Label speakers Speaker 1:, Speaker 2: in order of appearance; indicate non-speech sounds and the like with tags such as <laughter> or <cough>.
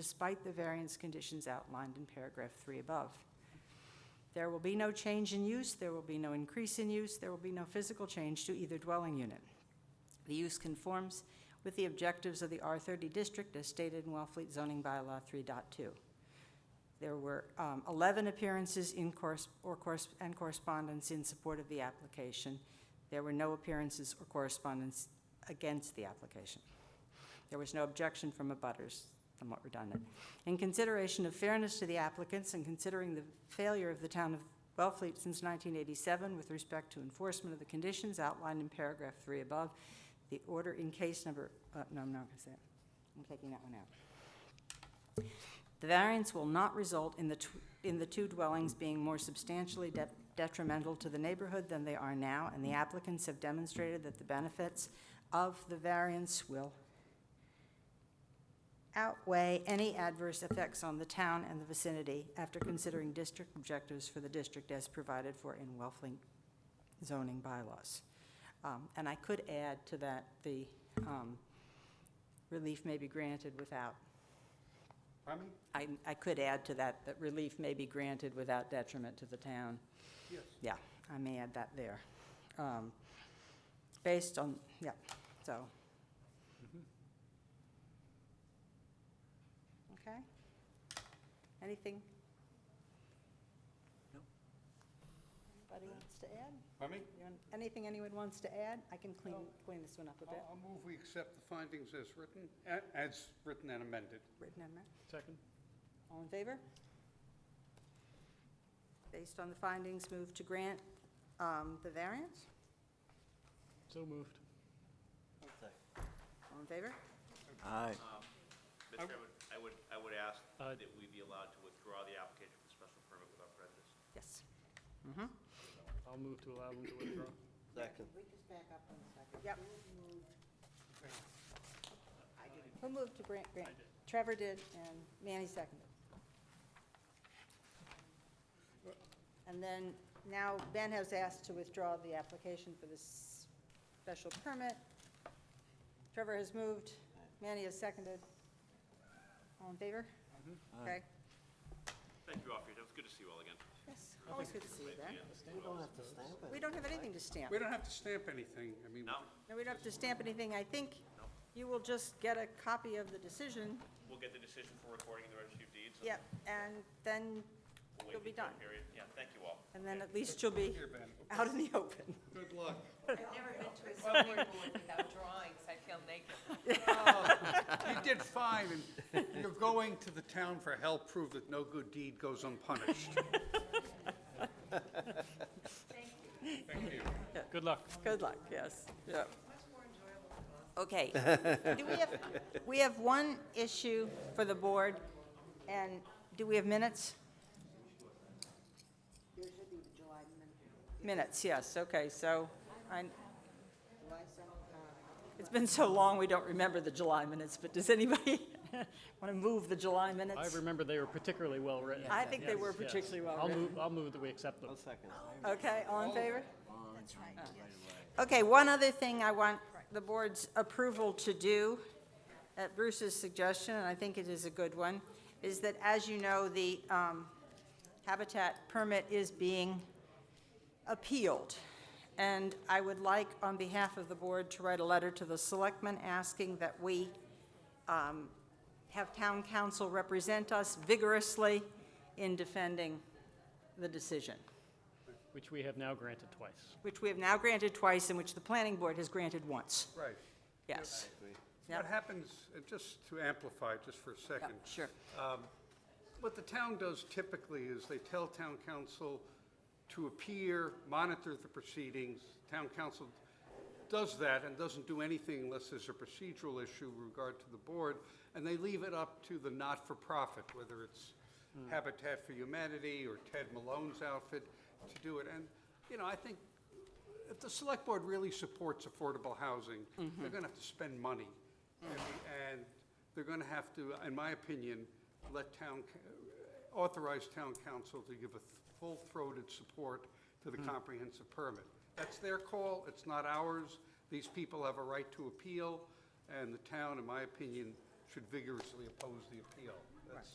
Speaker 1: despite the variance conditions outlined in paragraph three above. There will be no change in use, there will be no increase in use, there will be no physical change to either dwelling unit. The use conforms with the objectives of the R30 district as stated in Wellfleet zoning bylaw 3.2. There were um, 11 appearances in course, or course, and correspondence in support of the application. There were no appearances or correspondence against the application. There was no objection from abutters, somewhat redundant. In consideration of fairness to the applicants and considering the failure of the town of Wellfleet since 1987 with respect to enforcement of the conditions outlined in paragraph three above, the order in case number, uh, no, I'm not gonna say it. I'm taking that one out. The variance will not result in the, tw- in the two dwellings being more substantially de- detrimental to the neighborhood than they are now, and the applicants have demonstrated that the benefits of the variance will outweigh any adverse effects on the town and the vicinity after considering district objectives for the district as provided for in Wellfleet zoning bylaws. Um, And I could add to that, the um, relief may be granted without
Speaker 2: Pardon me?
Speaker 1: I, I could add to that, that relief may be granted without detriment to the town.
Speaker 2: Yes.
Speaker 1: Yeah, I may add that there. Um, Based on, yeah, so. Okay? Anything?
Speaker 2: No.
Speaker 1: Anybody wants to add?
Speaker 2: Pardon me?
Speaker 1: You want- Anything anyone wants to add? I can clean, clean this one up a
Speaker 2: I'll
Speaker 1: bit.
Speaker 2: I'll move we accept the findings as written, a- as written and amended.
Speaker 1: Written amendment?
Speaker 3: Second?
Speaker 1: All in favor? Based on the findings, move to grant um, the variance.
Speaker 3: So moved.
Speaker 1: All in favor?
Speaker 4: Aye.
Speaker 5: Um,
Speaker 2: I-
Speaker 5: Mr. Chairman, I would, I would ask
Speaker 3: Uh,
Speaker 5: that we be allowed to withdraw the application for the special permit without prejudice.
Speaker 1: Yes.
Speaker 3: I'll move to allow them to withdraw.
Speaker 4: Second.
Speaker 1: Yep. Who moved to grant, grant? Trevor did, and Manny seconded. And then, now Ben has asked to withdraw the application for this special permit. Trevor has moved, Manny has seconded. All in favor?
Speaker 4: Mm-hmm.
Speaker 1: Okay.
Speaker 5: Thank you all for your time. It's good to see you all again.
Speaker 1: Yes, always good to see you Ben.
Speaker 4: You don't have to stamp
Speaker 1: We don't have anything to stamp.
Speaker 2: We don't have to stamp anything, I mean.
Speaker 5: No,
Speaker 1: No, we don't have to stamp anything. I think you will just get a copy of the decision.
Speaker 5: we'll get the decision for recording in the registry of deeds. and
Speaker 1: Yep, and then
Speaker 5: we'll wait
Speaker 1: you'll be
Speaker 5: the
Speaker 1: done.
Speaker 5: appeal period. Yeah, thank you all.
Speaker 1: And then at least you'll be
Speaker 2: Here, Ben,
Speaker 1: out in the open.
Speaker 2: good luck.
Speaker 6: I've never been to a zoning board without drawings, I feel naked.
Speaker 2: You did fine, and you're going to the town for help, prove that no good deed goes unpunished. Thank you.
Speaker 3: Good luck.
Speaker 1: Good luck, yes, yep. <laughs> Okay. Do we have, we have one issue for the board, and do we have minutes?
Speaker 7: There should be the July minute,
Speaker 1: Minutes, yes, okay, so I,
Speaker 7: July seventh, uh,
Speaker 1: it's been so long, we don't remember the July minutes, but does anybody <laughs> want to move the July minutes?
Speaker 3: I remember they were particularly well-written.
Speaker 1: I think they
Speaker 3: Yes,
Speaker 1: were
Speaker 3: yes.
Speaker 1: particularly
Speaker 3: I'll
Speaker 1: well-written.
Speaker 3: move, I'll move that we accept them.
Speaker 4: I'll second it.
Speaker 1: Okay, all in favor? Oh.
Speaker 7: that's right, yes.
Speaker 1: Okay, one other thing I want the board's approval to do, at Bruce's suggestion, and I think it is a good one, is that, as you know, the um, habitat permit is being appealed. And I would like, on behalf of the board, to write a letter to the selectmen asking that we um, have town council represent us vigorously in defending the decision
Speaker 3: Which we have now granted twice.
Speaker 1: which we have now granted twice and which the planning board has granted once.
Speaker 2: Right.
Speaker 1: Yes.
Speaker 2: What
Speaker 1: Yep.
Speaker 2: happens, and just to amplify just for a
Speaker 1: Yep,
Speaker 2: second,
Speaker 1: Sure.
Speaker 2: What the town does typically is they tell town council to appear, monitor the proceedings. Town council does that and doesn't do anything unless there's a procedural issue with regard to the board, and they leave it up to the not-for-profit, whether it's Habitat for Humanity or Ted Malone's outfit, to do it. And, you know, I think if the select board really supports affordable housing, they're gonna have to spend money. And they're gonna have to, in my opinion, let town, ca- authorize town council to give a th- full-throated support to the comprehensive permit. That's their call, it's not ours. These people have a right to appeal, and the town, in my opinion, should vigorously oppose the appeal.